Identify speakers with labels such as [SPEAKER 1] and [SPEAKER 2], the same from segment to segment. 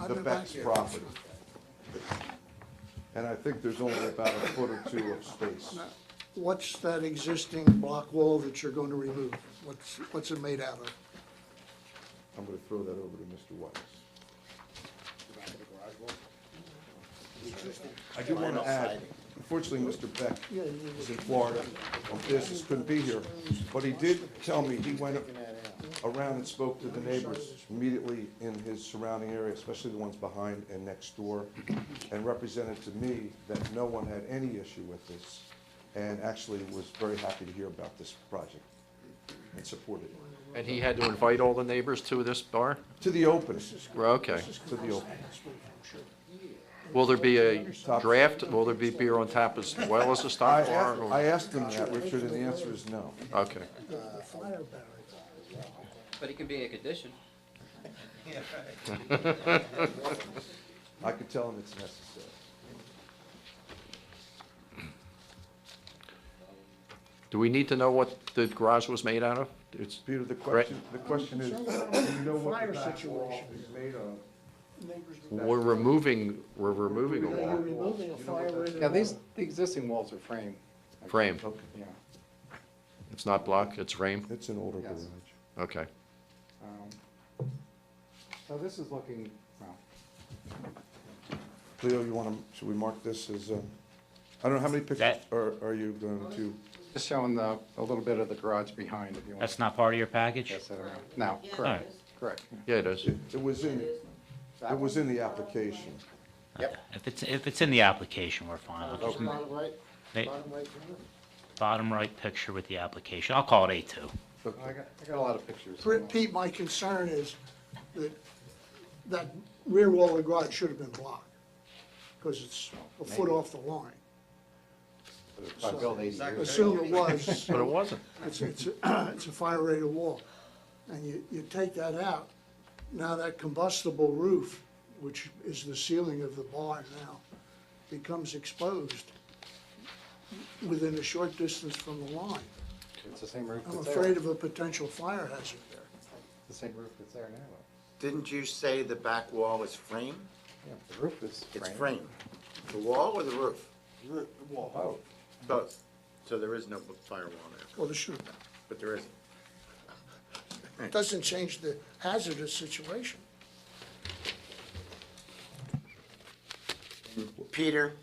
[SPEAKER 1] I've
[SPEAKER 2] the
[SPEAKER 1] been back
[SPEAKER 2] Beck's
[SPEAKER 1] here.
[SPEAKER 2] property. And I think there's only about a foot or two of space.
[SPEAKER 1] What's that existing block wall that you're going to remove? What's, what's it made out of?
[SPEAKER 2] I'm gonna throw that over to Mr. Weiss. I do wanna add, unfortunately, Mr. Beck
[SPEAKER 1] Yeah, you need
[SPEAKER 2] is in Florida on business, couldn't be here, but he did tell me he went around and spoke to the neighbors immediately in his surrounding area, especially the ones behind and next door, and represented to me that no one had any issue with this, and actually was very happy to hear about this project and supported it.
[SPEAKER 3] And he had to invite all the neighbors to this bar?
[SPEAKER 2] To the open,
[SPEAKER 3] Well, Okay.
[SPEAKER 2] to the open.
[SPEAKER 3] Will there be a draft, will there be beer on tap as well as a
[SPEAKER 2] I,
[SPEAKER 3] stock bar?
[SPEAKER 2] a- I
[SPEAKER 3] or-
[SPEAKER 2] asked him that, Richard, and the answer is no.
[SPEAKER 3] Okay.
[SPEAKER 4] But it can be a condition.
[SPEAKER 2] I could tell him it's necessary.
[SPEAKER 3] Do we need to know what the garage was made out of? It's,
[SPEAKER 2] Peter, the
[SPEAKER 3] Correct.
[SPEAKER 2] question, the question is, do you know what the back wall is made of?
[SPEAKER 3] we're removing, we're removing a
[SPEAKER 1] You're
[SPEAKER 3] wall
[SPEAKER 1] removing a fire rated
[SPEAKER 5] Yeah, these,
[SPEAKER 1] wall.
[SPEAKER 5] the existing walls are framed,
[SPEAKER 3] frame.
[SPEAKER 2] Okay,
[SPEAKER 5] yeah.
[SPEAKER 3] It's not block, it's frame?
[SPEAKER 2] it's an older garage.
[SPEAKER 5] Yes.
[SPEAKER 3] Okay.
[SPEAKER 5] Um, So this is looking, well,
[SPEAKER 2] Leo, you wanna, should we mark this as, um, I don't know, how many pictures
[SPEAKER 6] That-
[SPEAKER 2] are, are you going to?
[SPEAKER 5] just showing the, a little bit of the garage behind if you want.
[SPEAKER 6] That's not part of your package?
[SPEAKER 5] Yes, I don't know. No,
[SPEAKER 6] Alright.
[SPEAKER 5] correct, correct.
[SPEAKER 3] Yeah, it is.
[SPEAKER 2] It it was in,
[SPEAKER 5] That
[SPEAKER 2] it
[SPEAKER 5] one.
[SPEAKER 2] was in the application.
[SPEAKER 6] If it's, if it's in the application, we're fine. We'll just- they- Bottom right picture with the application. I'll call it A2.
[SPEAKER 5] I got, I got a lot of pictures.
[SPEAKER 1] Pete, my concern is that, that rear wall of the garage should have been blocked, because it's a foot off the line.
[SPEAKER 5] I built eighty years.
[SPEAKER 1] Assume it was.
[SPEAKER 3] But it wasn't.
[SPEAKER 1] It's, it's, a- it's a fire rated wall. And you, you take that out, now that combustible roof, which is the ceiling of the barn now, becomes exposed within a short distance from the line.
[SPEAKER 5] It's the same roof
[SPEAKER 1] I'm
[SPEAKER 5] that's there,
[SPEAKER 1] afraid of a potential fire hazard there.
[SPEAKER 5] the same roof that's there now.
[SPEAKER 7] Didn't you say the back wall is frame?
[SPEAKER 5] Yeah, the roof is
[SPEAKER 7] It's
[SPEAKER 5] framed.
[SPEAKER 7] frame. The wall or the roof?
[SPEAKER 2] Oh,
[SPEAKER 7] Both. So there is no firewall there,
[SPEAKER 1] Well, there should have been.
[SPEAKER 7] but there isn't.
[SPEAKER 1] It doesn't change the hazardous situation.
[SPEAKER 7] Peter,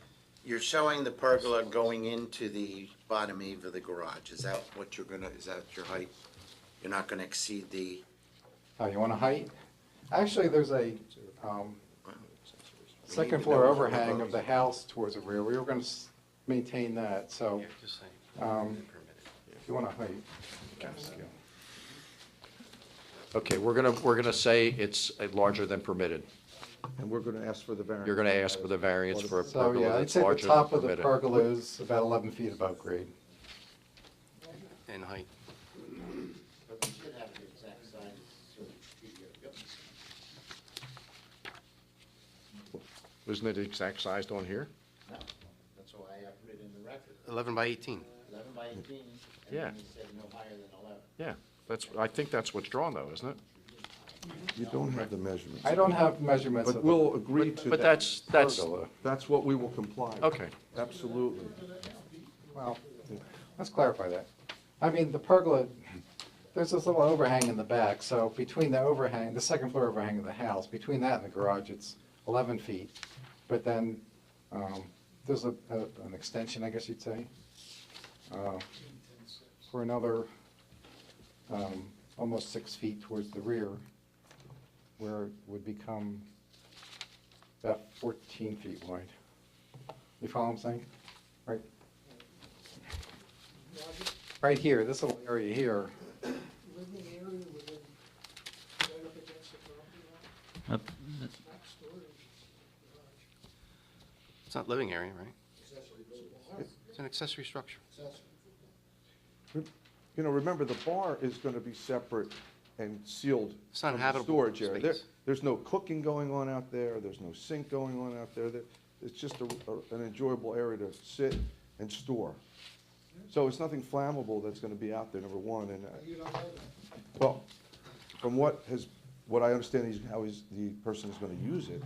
[SPEAKER 7] you're showing the pergola going into the bottom eve of the garage. Is that what you're gonna, is that your height? You're not gonna exceed the,
[SPEAKER 5] Oh, you want a height? Actually, there's a, um, second floor overhang of the house towards the rear. We were gonna s- maintain that, so. Um, if you want a height.
[SPEAKER 3] Okay, we're gonna, we're gonna say it's uh, larger than permitted.
[SPEAKER 2] And we're gonna ask for the variance.
[SPEAKER 3] You're gonna ask for the variance for a
[SPEAKER 5] So, yeah,
[SPEAKER 3] pergola
[SPEAKER 5] I'd
[SPEAKER 3] that's
[SPEAKER 5] say the
[SPEAKER 3] larger than
[SPEAKER 5] top of the
[SPEAKER 3] permitted.
[SPEAKER 5] pergola is about eleven feet above grade.
[SPEAKER 4] And height.
[SPEAKER 3] Isn't it exact sized on here?
[SPEAKER 7] That's why I put it in the record,
[SPEAKER 4] Eleven by eighteen.
[SPEAKER 7] eleven by eighteen.
[SPEAKER 3] then Yeah.
[SPEAKER 7] you said no higher than eleven.
[SPEAKER 3] Yeah, that's, I think that's what's drawn though, isn't it?
[SPEAKER 2] You don't have the measurements.
[SPEAKER 5] I don't have measurements of
[SPEAKER 2] But
[SPEAKER 5] the
[SPEAKER 2] we'll agree to that.
[SPEAKER 3] But that's, that's,
[SPEAKER 5] pergola.
[SPEAKER 2] That's what we will comply with.
[SPEAKER 3] Okay.
[SPEAKER 2] Absolutely.
[SPEAKER 5] Well, let's clarify that. I mean, the pergola, there's this little overhang in the back, so between the overhang, the second floor overhang of the house, between that and the garage, it's eleven feet. But then, um, there's a, a- an extension, I guess you'd say, uh, for another, um, almost six feet towards the rear, where it would become about fourteen feet wide. You follow what I'm saying? Right, right here, this little area here,
[SPEAKER 1] Living area within, right up against the property line,
[SPEAKER 6] Uh,
[SPEAKER 1] it's not storage.
[SPEAKER 4] It's not living area, right? It's an accessory structure.
[SPEAKER 2] You know, remember, the bar is gonna be separate and sealed.
[SPEAKER 4] It's not
[SPEAKER 2] from the
[SPEAKER 4] habitable
[SPEAKER 2] Storage area. There-
[SPEAKER 4] space.
[SPEAKER 2] There's no cooking going on out there, there's no sink going on out there. There- It's just a, a- an enjoyable area to sit and store. So it's nothing flammable that's gonna be out there, number one, and, uh,
[SPEAKER 1] You don't know that.
[SPEAKER 2] well, from what has, what I understand is how is, the person is gonna use it,